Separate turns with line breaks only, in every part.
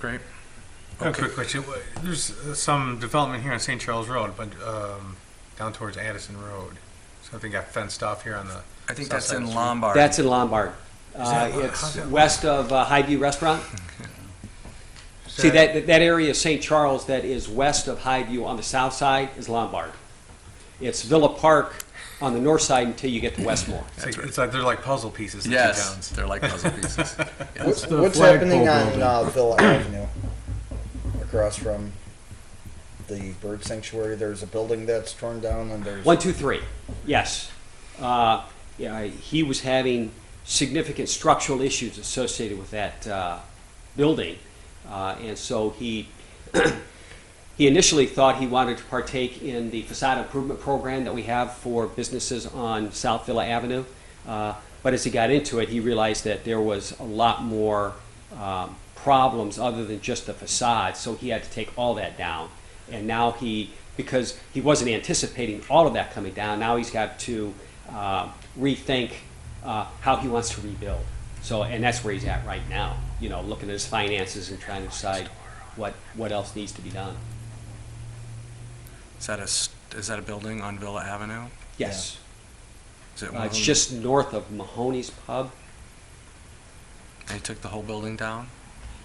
Great.
A
Okay.
quick question. Wha- There's uh, some development here on St. Charles Road, but um, down towards Addison Road. Something got fenced off here on the.
I think
south
that's
side of the
in
street.
Lombard.
That's in Lombard. Uh,
that- how's
It's
that-
west of uh, Highview Restaurant.
Is
See, that, that area of St. Charles that is west of Highview on the south side is Lombard. It's Villa Park on the north side until you get to Westmore.
It's like, it's like they're like puzzle pieces. The two
yes,
towns.
they're like puzzle pieces. Yes.
What's,
the
what's
flagpole
happening on
building?
uh, Villa Avenue? Across from the bird sanctuary, there's a building that's torn down, and there's
One, two, three. Yes. Uh, yeah, he was having significant structural issues associated with that uh, building, uh, and so he he initially thought he wanted to partake in the facade improvement program that we have for businesses on South Villa Avenue. Uh, but as he got into it, he realized that there was a lot more um, problems other than just the facade, so he had to take all that down. And now he, because he wasn't anticipating all of that coming down, now he's got to uh, rethink uh, how he wants to rebuild. So, and that's where he's at right now, you know, looking at his finances and trying to decide what, what else needs to be done.
Is that a s- is that a building on Villa Avenue?
Yes.
Is it
Uh,
one of
it's
them?
just north of Mahoney's Pub.
they took the whole building down.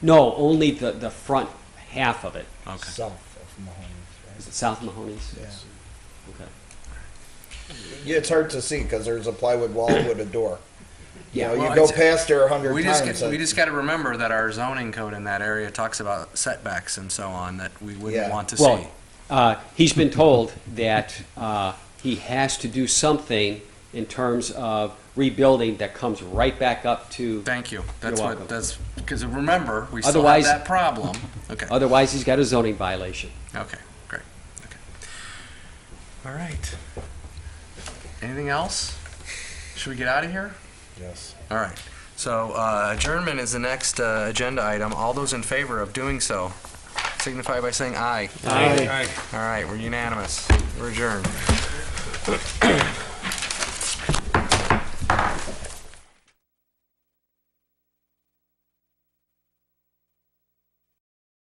No, only the, the front half of it.
Okay.
south of Mahoney's.
Is it South Mahoney's?
Right?
Okay.
Yeah. yeah, it's hard to see because there's a plywood wall with a door. You know,
Well,
you go
it's-
past there a hundred
We
times. uh,
just get,
and-
we just got to remember that our zoning code in that area talks about setbacks and so on that we wouldn't
Yeah.
want to
Well,
see.
Uh, he's been told that uh, he has to do something in terms of rebuilding that comes right back up to.
Thank you. That's what
welcome.
that's because remember we
Otherwise-
still have that problem. Okay.
Otherwise, he's got a zoning violation.
Okay. Great. Okay. All right. Anything else? Should we get out of here?
Yes.
All right. So uh, adjournment is the next uh, agenda item. All those in favor of doing so signify by saying aye.
Aye.
All right, we're unanimous. We're adjourned.